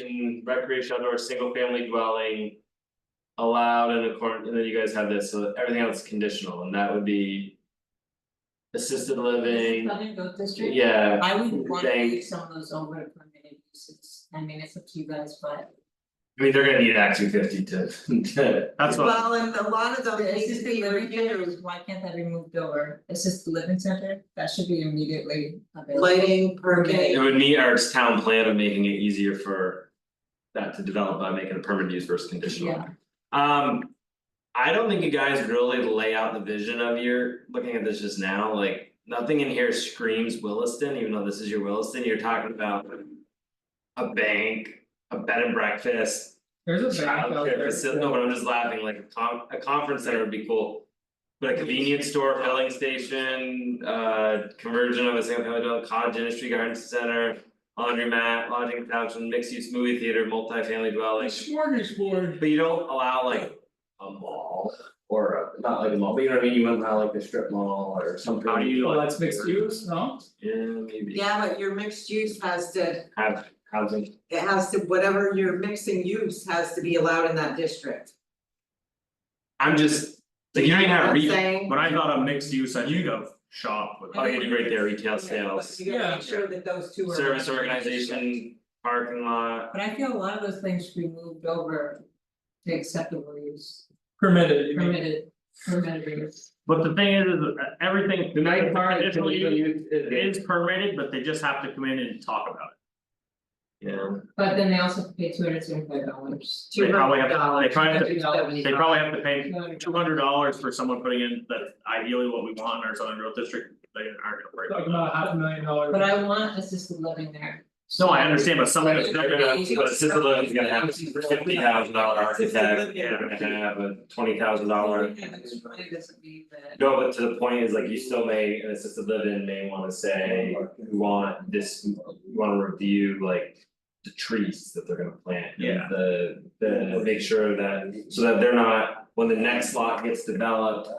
in recreation outdoor, single family dwelling. Allowed in accordance, and then you guys have this, so everything else is conditional, and that would be. Assisted living, Southern Growth District. yeah, I wouldn't want to Thank- leave some of those over to permitted uses, I mean, it's up to you guys, but. I mean, they're gonna need Act two fifty to, to. That's what, Well, and a lot of those The assisted ACC living reviews, centers, why can't that be moved over, assisted living center, that should be immediately available. lighting, It permitting, would meet our town plan of making it easier for. That to develop by making a permanent use versus conditional. Um. I don't think you guys really lay out the vision of your, looking at this just now, like, nothing in here screams Williston, even though this is your Williston, you're talking about. A bank, a bed and breakfast, There's childcare facility, no, but I'm just laughing, like, a con- a conference center would be cool. But a convenience store, filling station, uh, conversion of a single family dwelling, cottage industry, garden center. Laundromat, lodging couch, and mixed use movie theater, multifamily dwelling. Smorgasbord. But you don't allow like a mall or a, not like a mall, but you know what I mean, you wouldn't allow like a strip mall or something. How do you, well, Oh, that's mixed use, no? Yeah, maybe yeah, but your mixed use has to, have housing, it has to, whatever you're mixing use has to be allowed in that district. I'm just, like, you don't even have I'm retail, saying, when I thought of mixed use, I think of shop with. oh, you integrate there, retail sales, but you gotta Yeah. make sure that those two are. service in the district. organization, parking lot. But I feel a lot of those things should be moved over to acceptable use, Permitted, you mean? permitted, permitted use. But the thing is, is that everything. The night part is Conditional illegal use use Is is, permitted, but they just have to come in and talk about yeah, But then they also have to pay two hundred seventy five dollars. it. They probably have, to- they probably have, $200. to- they probably have to pay two hundred dollars for someone putting in, that's ideally what we want in our southern growth district, they aren't gonna break. Talking about half a million dollars. But I want assisted living there. No, I understand, but something that's they're never, gonna, but assisted living's gonna have a fifty thousand dollar architect, they're gonna have a twenty thousand dollar. It doesn't mean that. No, but to the point is like you still may, an assisted living may wanna say, we want this, we wanna review like. The trees that they're gonna plant. and Yeah. The the make sure that, so that they're not, when the next lot gets developed.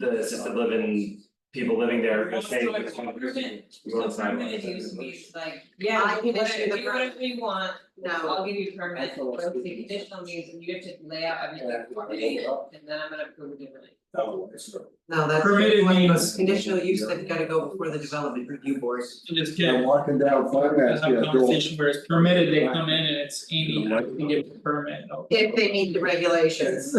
The assisted living, people living there are gonna say. We want So sidewalks. permitted use means like, I yeah, can issue whatever, the do whatever you want, No, I'll give you a permit, That's all. but the conditional means and you have to lay out everything for me, and then I'm gonna approve it differently. No, it's not. no, that's. Permitted one of those means- Conditional use that's gotta go before the development review board. I'm just I'm kidding, walking down I finance, have a yeah, door. conversation where it's permitted, they come in and it's Amy, I can give the permit, no. If they meet the regulations,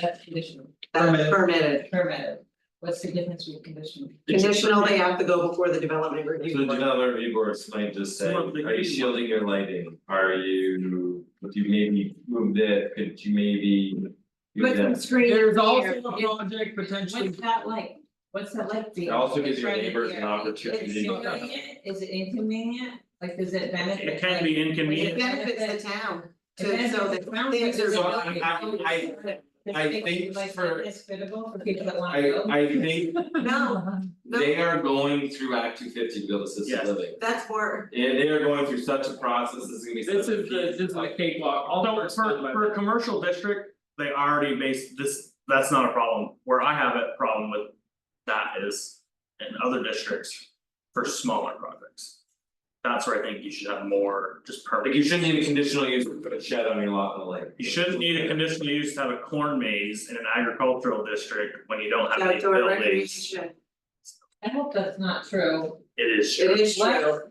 That's conditional, that's Permitted. permitted. permitted, what's the difference between conditional? Conditional, they have to go before the development So the review board. developer review boards might just say, Well, are they you could- shielding your lighting, are you, would you maybe move this, could you maybe? do Put some this? screen There's here. also a project potentially, What's that like, what's that like being? It also gives your right in neighbors an here? opportunity Is to- it convenient? Is it inconvenient, like, does it benefit? it can be It inconvenient, benefits the town. It to- so benefits that the town they because observe- it's So not- I- I- it's I like- think like, for- It's fitable for people that wanna I go. I think No, no. They are going through Act two fifty to build assisted Yes. living. That's more, And they are going through such a process, this is gonna be. this such a is the, this is the cakewalk, although although it's for, for for a commercial district, they already base this, that's not a problem, where I have a problem with. That is in other districts for smaller projects. That's where I think you should have more just Like permit, you shouldn't need a conditional use to put a shed on your lot in the lake. you shouldn't need a conditional use to have a corn maze in an agricultural district when you don't have any outdoor buildings. recreation, I hope that's not true, It is it true, is true,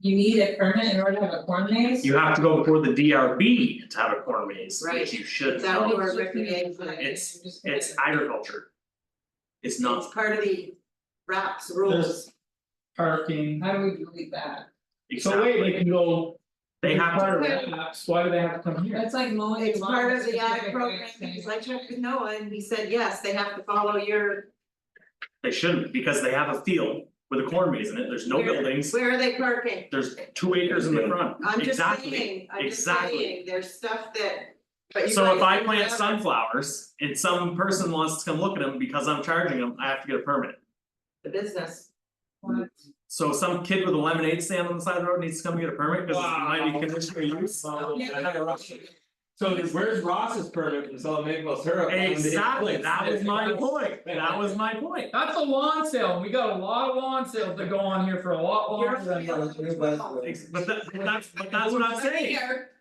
you need a permit in order to have a corn maze? you have to go before the DRB to have a corn maze, Right. which you should, It's outdoor. know. or recreation. It's- it's agriculture. It's it's not, part of the RAPS rules, parking. How do we delete that? So wait, they exactly, can go. they have to. Part of that, why do they have to come here? That's like mowing. it's lawn part of the specific ag program, areas. because I checked with Noah and he said, yes, they have to follow your, They shouldn't, because they have a field with a corn maze in it, there's no Where- buildings, where are they parking? there's two acres in the front, I'm just exactly. saying, I'm just exactly. saying, there's stuff that, but you So if guys I plant have- sunflowers and some person wants to come look at them because I'm charging them, I have to get a permit. The business, So some kid with a lemonade stand on the side of the road needs to come get a permit, cause it might Wow. be conditional use. Yeah. So where's Ross's permit from selling maple syrup? on the Exactly, place? that was my point, that was my point. That's a lawn sale, we got a lot of lawn sales that go on here for a lot longer than. You're- Ex- But that, but that's, but that's what I'm saying. Here.